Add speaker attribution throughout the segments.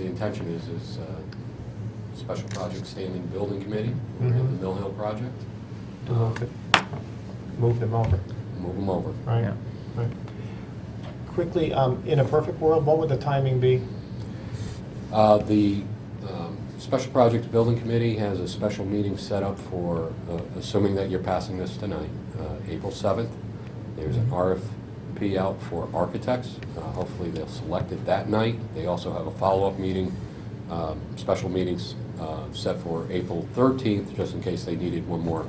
Speaker 1: intention is, is uh, Special Project Standing Building Committee, and
Speaker 2: Mhm.
Speaker 1: the Mill Hill Project,
Speaker 2: To move it- Move them over,
Speaker 1: move them over.
Speaker 2: right?
Speaker 3: Yeah.
Speaker 2: Right. Quickly, um, in a perfect world, what would the timing be?
Speaker 1: Uh, The um, Special Projects Building Committee has a special meeting set up for, uh, assuming that you're passing this tonight, uh, April 7th. There's an RFP out for architects. Uh, Hopefully, they'll select it that night. They also have a follow-up meeting, um, special meetings uh, set for April 13th, just in case they needed one more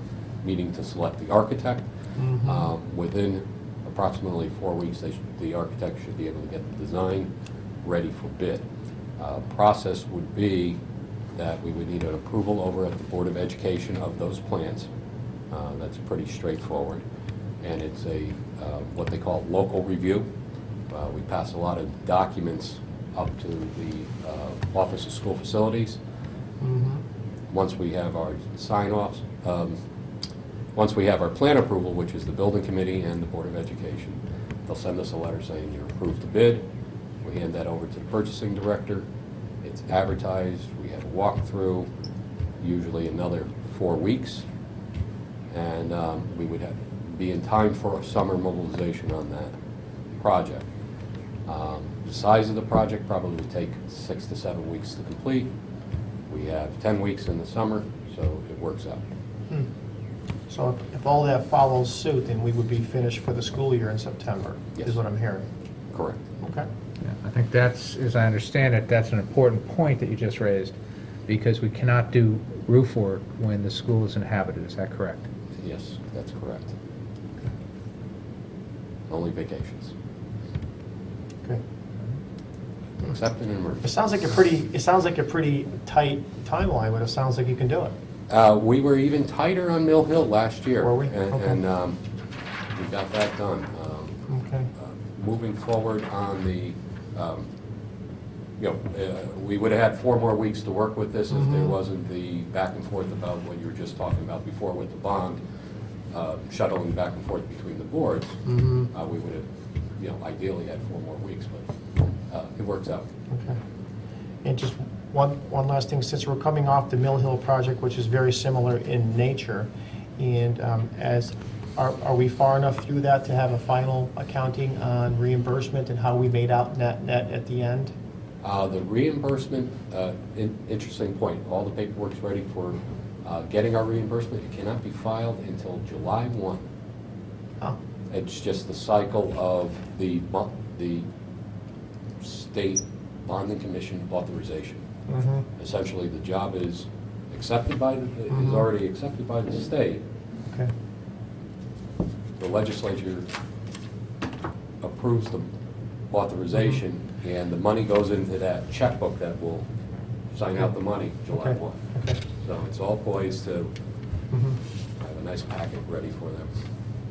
Speaker 1: meeting to select the architect. Um, Within approximately four weeks, they should- the architect should be able to get the design ready for bid. Uh, Process would be that we would need an approval over at the Board of Education of those plans. Uh, That's pretty straightforward. And it's a, uh, what they call local review. Uh, We pass a lot of documents up to the uh, Office of School Facilities.
Speaker 2: Mhm.
Speaker 1: Once we have our sign-offs, um, once we have our plan approval, which is the building committee and the Board of Education, they'll send us a letter saying you approved the bid. We hand that over to the purchasing director. It's advertised, we have a walkthrough, usually another four weeks. And um, we would have, be in time for summer mobilization on that project. Um, The size of the project probably would take six to seven weeks to complete. We have 10 weeks in the summer, so it works out.
Speaker 2: Hmm. So if- if all that follows suit, then we would be finished for the school year in September, is
Speaker 1: Yes.
Speaker 2: what I'm hearing.
Speaker 1: Correct.
Speaker 2: Okay.
Speaker 3: Yeah, I think that's, as I understand it, that's an important point that you just raised, because we cannot do roof work when the school is inhabited, is that correct?
Speaker 1: Yes, that's correct. Only vacations,
Speaker 2: Good.
Speaker 1: except in an
Speaker 2: It
Speaker 1: emergency.
Speaker 2: sounds like a pretty, it sounds like a pretty tight timeline, but it sounds like you can do it.
Speaker 1: Uh, We were even tighter on Mill Hill last year.
Speaker 2: Were we?
Speaker 1: and-
Speaker 2: Okay.
Speaker 1: And um, we got that done. Um,
Speaker 2: Okay.
Speaker 1: uh, Moving forward on the, um, you know, uh, we would have had four more weeks to work with this if there
Speaker 2: Mhm.
Speaker 1: wasn't the back and forth about what you were just talking about before with the bond, uh, shuttling back and forth between the boards.
Speaker 2: Mhm.
Speaker 1: Uh, We would have, you know, ideally had four more weeks, but uh, it works out.
Speaker 2: Okay. And just one, one last thing, since we're coming off the Mill Hill project, which is very similar in nature, and um, as, are, are we far enough through that to have a final accounting on reimbursement and how we made out net, net at the end?
Speaker 1: Uh, The reimbursement, uh, in- interesting point, all the paperwork's ready for uh, getting our reimbursement. It cannot be filed until July 1.
Speaker 2: Oh,
Speaker 1: It's just the cycle of the, mo- the state bonding commission authorization.
Speaker 2: mhm.
Speaker 1: Essentially, the job is accepted by, the is
Speaker 2: Mhm.
Speaker 1: already accepted by the state.
Speaker 2: okay,
Speaker 1: The legislature approves the authorization,
Speaker 2: Mm-hmm.
Speaker 1: and the money goes into that checkbook that will sign out the money July
Speaker 2: Okay.
Speaker 1: 1.
Speaker 2: okay.
Speaker 1: So it's all poised to
Speaker 2: mhm.
Speaker 1: have a nice packet ready for them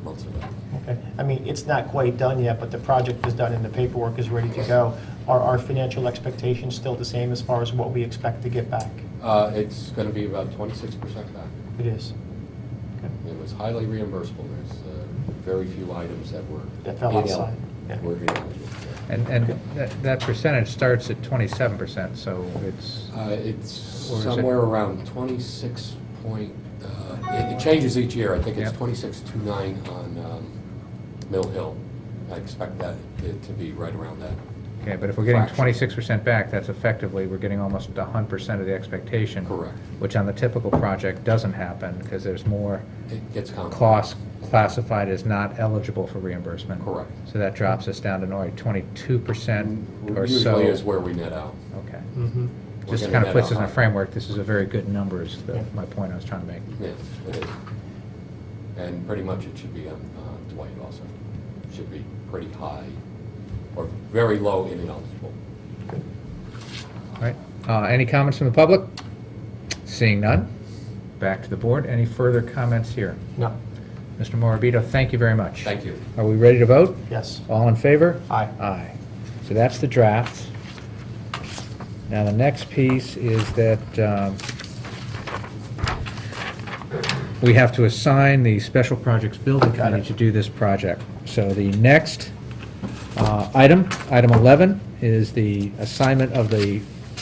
Speaker 1: months ago.
Speaker 2: Okay, I mean, it's not quite done yet, but the project is done and the paperwork is ready to go. Are our financial expectations still the same as far as what we expect to get back?
Speaker 1: Uh, It's going to be about 26% back.
Speaker 2: It is. Okay.
Speaker 1: It was highly reimbursable. There's uh, very few items that were.
Speaker 2: That fell
Speaker 1: inel-
Speaker 2: outside, yeah.
Speaker 1: Were ineligible.
Speaker 3: And, and that, that percentage starts at twenty-seven percent, so it's,
Speaker 1: Uh, It's
Speaker 3: Or is it-
Speaker 1: somewhere around 26 point, uh, it it changes each year. I think it's
Speaker 3: Yeah.
Speaker 1: 26.29 on um, Mill Hill. I expect that it to be right around that.
Speaker 3: okay, but if we're getting
Speaker 1: Fraction.
Speaker 3: twenty-six percent back, that's effectively, we're getting almost a hundred percent of the expectation.
Speaker 1: Correct.
Speaker 3: Which on the typical project doesn't happen, because there's more
Speaker 1: It gets complicated.
Speaker 3: costs classified as not eligible for reimbursement.
Speaker 1: Correct.
Speaker 3: So that drops us down to nearly twenty-two percent or
Speaker 1: Mm,
Speaker 3: so.
Speaker 1: Usually is where we net out.
Speaker 3: Okay.
Speaker 2: Mm-hmm.
Speaker 1: We're
Speaker 3: Just
Speaker 1: gonna
Speaker 3: kind
Speaker 1: net
Speaker 3: of puts
Speaker 1: out
Speaker 3: us in a
Speaker 1: high.
Speaker 3: framework, this is a very good number, is the-
Speaker 2: Yeah.
Speaker 3: my point I was trying to make.
Speaker 1: Yeah, it is. And pretty much it should be on uh, Dwight also. Should be pretty high or very low in ineligible.
Speaker 3: All right, Uh, any comments from the public? Seeing none, back to the board. Any further comments here?
Speaker 2: No,
Speaker 3: Mr. Morabito, thank you very much.
Speaker 1: Thank you.
Speaker 3: Are we ready to vote?
Speaker 2: yes.
Speaker 3: All in favor?
Speaker 2: Aye.
Speaker 3: Aye. So that's the draft. Now, the next piece is that um, we have to assign the Special Projects Building
Speaker 2: Got it.
Speaker 3: Committee to do this project. So the next uh, item, item 11, is the assignment of the